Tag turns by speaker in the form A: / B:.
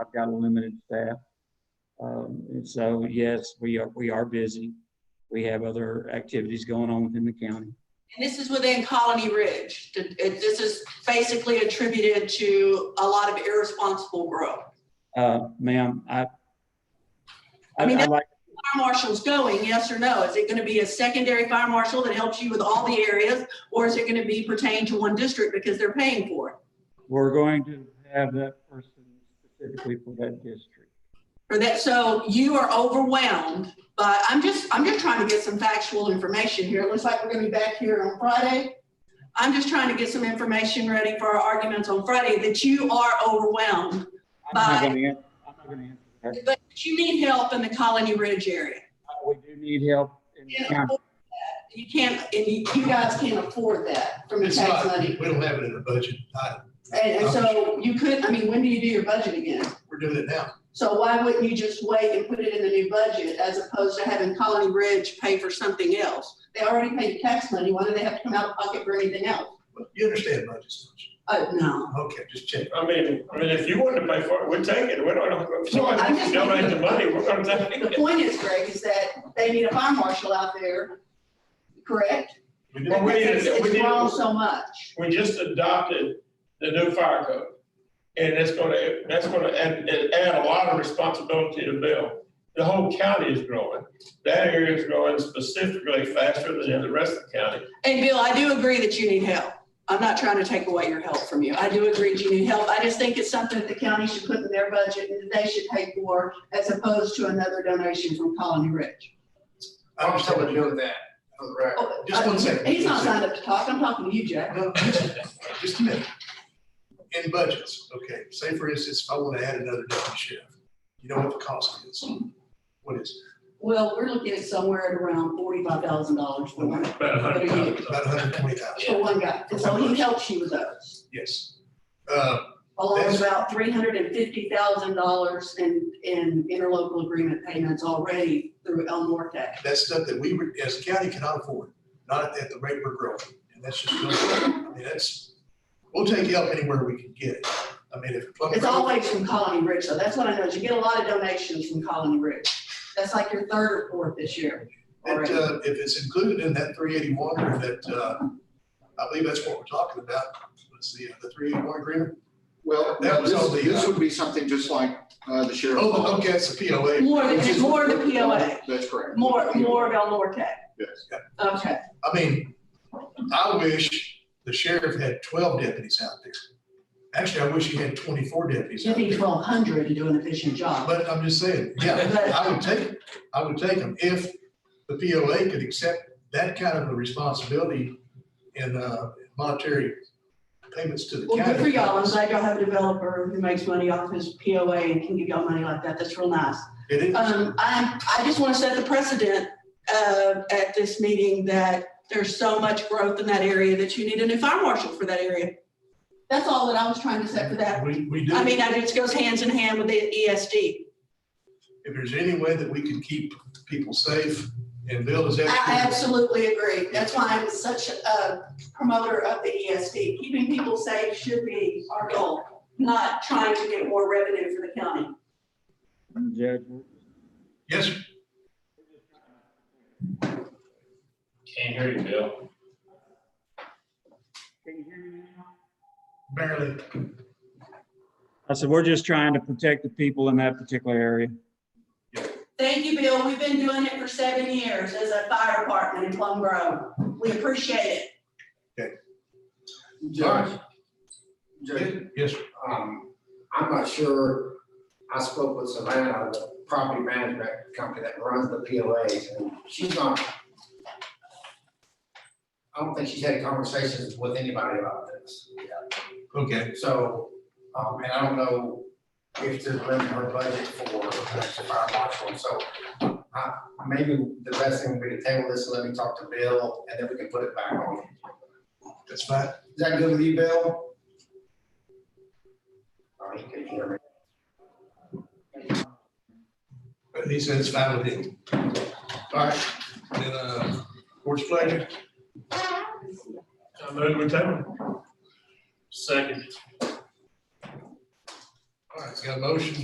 A: I've got a limited staff. Um, and so, yes, we are, we are busy. We have other activities going on within the county.
B: And this is within Colony Ridge. Th- it- This is basically attributed to a lot of irresponsible growth.
A: Uh, ma'am, I,
B: I mean,
A: I like,
B: Fire marshal's going, yes or no? Is it going to be a secondary fire marshal that helps you with all the areas? Or is it going to be pertained to one district because they're paying for it?
A: we're going to have that person specifically for that district.
B: For that, so you are overwhelmed, but I'm just, I'm just trying to get some factual information here. It looks like we're gonna be back here on Friday. I'm just trying to get some information ready for our arguments on Friday that you are overwhelmed,
A: I'm not
B: Bye.
A: gonna, an- I'm not gonna answer that. Uh,
B: but you need help in the Colony Ridge area.
A: We do need help in the
B: You
A: county.
B: can't afford that. You can't, and you, you guys can't afford that from your
C: It's
B: tax
C: not, we
B: money.
C: don't have it in the budget. I-
B: And, and so you could, I mean, when do you do your budget again?
C: We're doing it now.
B: So why wouldn't you just wait and put it in the new budget as opposed to having Colony Ridge pay for something else? They already paid the tax money, why do they have to come out of pocket for anything else?
C: But You understand budgets, don't you?
B: Oh, no.
C: Okay, just check.
D: I mean, I mean, if you want to pay for it, we'll take it. We don't, if somebody
B: I'm just-
D: donate the money, we're gonna take
B: The
D: it.
B: point is, Greg, is that they need a fire marshal out there, correct?
C: We
D: Well,
C: did-
D: we need to-
B: It's
D: we
B: it's
D: need to-
B: grown so much.
D: We just adopted the new fire code. And it's gonna, that's gonna add, it add a lot of responsibility to Bill. The whole county is growing. That area is growing specifically faster than the rest of the county.
B: And Bill, I do agree that you need help. I'm not trying to take away your help from you. I do agree that you need help. I just think it's something that the county should put in their budget and that they should pay for as opposed to another donation from Colony Ridge.
C: I'm just telling you that. for the record.
B: Oh,
C: Just one second.
B: He's not
C: One second.
B: signed up to talk. I'm talking to you, Jack.
C: No, just- Just a minute. In budgets, okay, say for instance, if I want to add another deputy sheriff, you know what the cost is? What is
B: Well, we're looking at somewhere at around forty-five thousand dollars for one,
D: About a hundred
C: it?
D: times.
C: About hundred and twenty thousand,
B: for one guy. And so he helps you with those.
C: yes. Uh,
B: along with about three hundred and fifty thousand dollars in, in interlocal agreement payments already through El Norte.
C: that's stuff that we, would- as a county cannot afford, not at the rate we're growing. And that's just, I mean, that's, we'll take help anywhere we can get it. I mean, if. Plum
B: It's
C: Grove-
B: always from Colony Ridge, so that's what I know, is you get a lot of donations from Colony Ridge. That's like your third or fourth this year
C: It,
B: already.
C: uh, if it's included in that three eighty-one, or that, uh, I believe that's what we're talking about, was the, the three eighty-one agreement?
E: Well,
C: That was
E: this-
C: all the,
E: This
C: uh,
E: would be something just like uh, the sheriff's.
C: Oh, okay, it's the POA.
B: More than,
E: Which
B: it's
E: is-
B: more of the POA,
E: That's correct.
B: more, more of El Norte.
E: Yes.
B: Okay,
C: I mean, I wish the sheriff had twelve deputies out there. Actually, I wish he had twenty-four deputies
B: you
C: out
B: need
C: there.
B: twelve hundred to do an efficient job.
C: But I'm just saying, yeah, I would take, I would take them if the POA could accept that kind of a responsibility and, uh, monetary payments to the
B: Well,
C: county.
B: good for y'all, I'm glad y'all have a developer who makes money off his POA and can give y'all money like that, that's real nice.
C: It is.
B: Um, I, I just want to set the precedent, uh, at this meeting that there's so much growth in that area that you need a new fire marshal for that area. That's all that I was trying to set for that.
C: We, we do.
B: I mean, I just goes hands in hand with the E ESD.
C: if there's any way that we can keep people safe and build as
B: I
C: educated.
B: absolutely agree. That's why I'm such a promoter of the ESD. Keeping people safe should be our goal, not trying to get more revenue for the county.
A: Madam Judge, we're-
C: Yes, sir.
D: Can't hear you, Bill.
C: barely.
A: I said, we're just trying to protect the people in that particular area.
B: Thank you, Bill. We've been doing it for seven years as a fire department in Plum Grove. We appreciate it.
F: Judge, Judge,
C: Yes, sir.
F: um, I'm not sure, I spoke with Savannah, the property management company that runs the POAs, and she's not. I don't think she's had conversations with anybody about this.
C: okay.
F: So, um, and I don't know if there's room in her budget for an extra fire marshal, so. Uh, maybe the best thing would be to table this, and let me talk to Bill, and then we can put it back on.
C: That's fine.
F: Is that good with you, Bill? Oh, he can hear me.
C: But He said it's fine with him. All right, then, uh, board's pleasure.
D: I move we table. Second.
C: All right, it's got a motion